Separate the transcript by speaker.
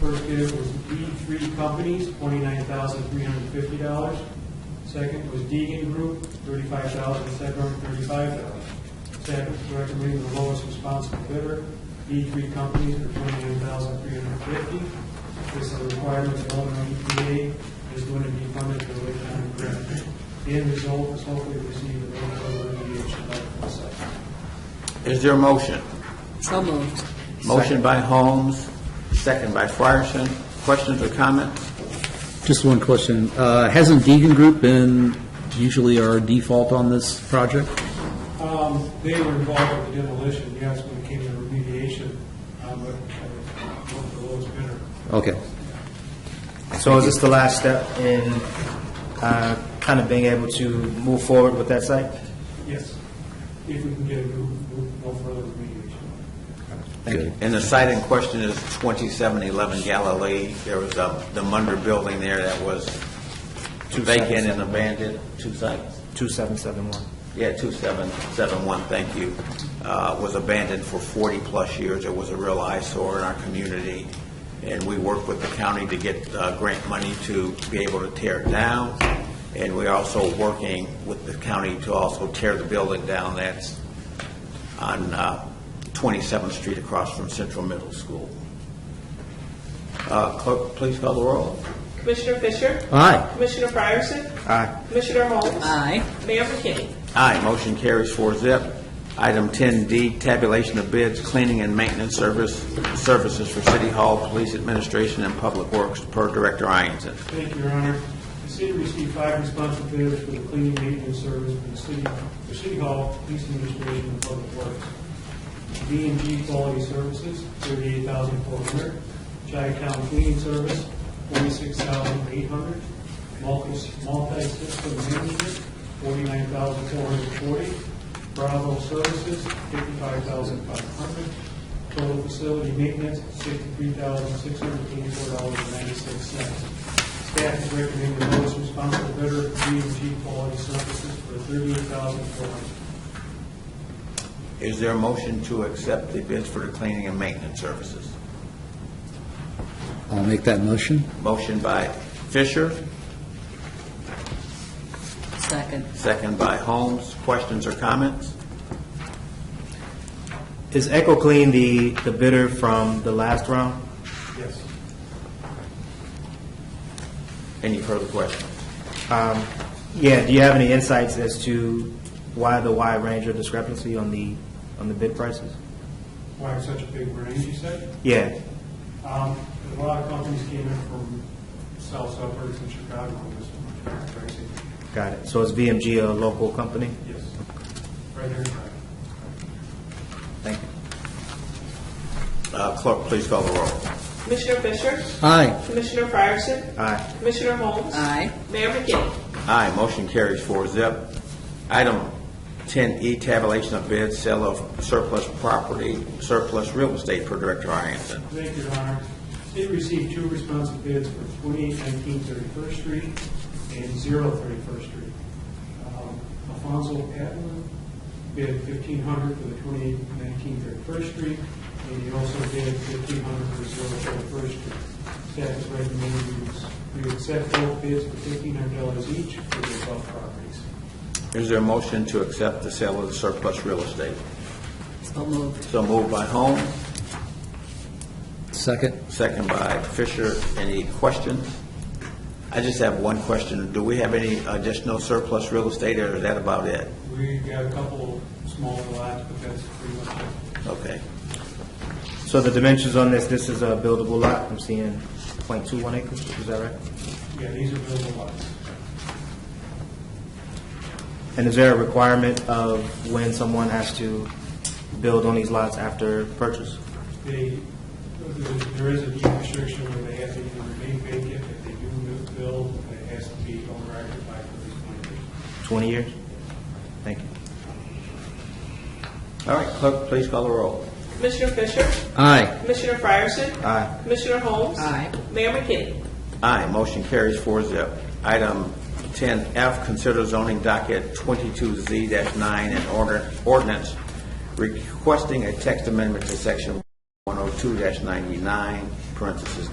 Speaker 1: First bid was E Three Companies, twenty-nine thousand three hundred and fifty dollars. Second was Deegan Group, thirty-five thousand seven hundred and thirty-five dollars. Staff is recommending the lowest responsible bidder, E Three Companies, for twenty-nine thousand three hundred and fifty. dollars This is a requirement of E Illinois EPA, is going to be funded through Lake County grant. The end result is hopefully receive E a local remediation letter from the site.
Speaker 2: Is there a motion?
Speaker 3: So moved.
Speaker 2: Motion by Holmes, second by Frierson. Questions or comments?
Speaker 4: Just one question. Uh, Hasn't Deegan Group been usually our default on this project?
Speaker 1: Um, they were involved with the demolition, yes, when it came to remediation, um, but uh, one of the lowest bidder.
Speaker 4: Okay.
Speaker 5: So is this the last step in uh, kind of being able to move forward with that site?
Speaker 1: Yes, if we can get a move, move no further remediation.
Speaker 4: Good.
Speaker 2: And the site in question is 2711 Galilee. There was a- the Munder building there that was vacant and abandoned, two sites.
Speaker 5: 2771.
Speaker 2: Yeah, 2771, thank you, uh, was abandoned for 40-plus years. It was a real eyesore in our community, and we worked with the county to get uh, grant money to be able to tear it down, and we're also working with the county to also tear the building down that's on uh, 27th Street across from Central Middle School. Uh, Clerk, please call the roll.
Speaker 6: Commissioner Fisher?
Speaker 4: Aye.
Speaker 6: Commissioner Fryerson?
Speaker 5: Aye.
Speaker 6: Commissioner Holmes?
Speaker 3: Aye.
Speaker 6: Mayor McKinney?
Speaker 2: Aye, motion carries four zip. Item 10D, tabulation of bids, cleaning and maintenance service, services for City Hall, Police Administration, and Public Works per Director Ianson.
Speaker 1: Thank you, Your Honor. The city received five responsive bids for the cleaning maintenance service for the city, for City Hall, Police Administration, and Public Works. B and G Quality Services, thirty-eight thousand four hundred. Chi-Town Cleaning Service, forty-six thousand eight hundred. Multi, multi-system management, forty-nine thousand four hundred forty. Bravo Services, fifty-five thousand five hundred. Total facility maintenance, sixty-three thousand six hundred eighty-four dollars and ninety-six cents. Staff is recommending the lowest responsible bidder, B and G Quality Services, for thirty-eight thousand four hundred.
Speaker 2: Is there a motion to accept the bids for the cleaning and maintenance services?
Speaker 4: I'll make that motion.
Speaker 2: Motion by Fisher,
Speaker 3: Second.
Speaker 2: second by Holmes. Questions or comments?
Speaker 5: Is Echo Clean the the bidder from the last round?
Speaker 1: Yes.
Speaker 2: Any further questions?
Speaker 5: Um, Yeah, do you have any insights as to why the wide range of discrepancy on the, on the bid prices?
Speaker 1: Why such a big range, you said?
Speaker 5: Yeah,
Speaker 1: Um, A lot of companies came in from south suburbs in Chicago with this one, Tracy.
Speaker 5: got it. So is VMG a local company?
Speaker 1: Yes. Right here in Chicago.
Speaker 2: Thank you. Uh, Clerk, please call the roll.
Speaker 6: Commissioner Fisher?
Speaker 4: Aye.
Speaker 6: Commissioner Fryerson?
Speaker 5: Aye.
Speaker 6: Commissioner Holmes?
Speaker 3: Aye.
Speaker 6: Mayor McKinney?
Speaker 2: Aye, motion carries four zip. Item 10E, tabulation of bids, sale of surplus property, surplus real estate per Director Ianson.
Speaker 1: Thank you, Your Honor. City received two responsive bids for 2819 31st Street and 0 31st Street. Um, Alfonso Patton bid 1500 for the 2819 31st Street, and he also bid 1500 for 0 31st Street. Staff is recommending we s- we accept both bids for $1,500 each for the above properties.
Speaker 2: Is there a motion to accept the sale of the surplus real estate?
Speaker 3: So moved.
Speaker 2: So moved by Holmes,
Speaker 4: Second.
Speaker 2: second by Fisher. Any questions? I just have one question. Do we have any additional surplus real estate, or is that about it?
Speaker 1: We got a couple smaller lots, but that's pretty much it.
Speaker 2: Okay.
Speaker 5: So the dimensions on this, this is a buildable lot, I'm seeing .21 acres, is that right?
Speaker 1: Yeah, these are buildable lots.
Speaker 5: And is there a requirement of when someone has to build on these lots after purchase?
Speaker 1: They, there is a deed restriction where they have to either remain vacant, if they do build, it has to be owner occupied for these twenty years.
Speaker 5: 20 years? Thank you.
Speaker 2: All right, clerk, please call the roll.
Speaker 6: Commissioner Fisher?
Speaker 4: Aye.
Speaker 6: Commissioner Fryerson?
Speaker 5: Aye.
Speaker 6: Commissioner Holmes?
Speaker 3: Aye.
Speaker 6: Mayor McKinney?
Speaker 2: Aye, motion carries four zip. Item 10F, consider zoning docket 22Z-9 and order- ordinance oh requesting a text amendment to section 102-99, parentheses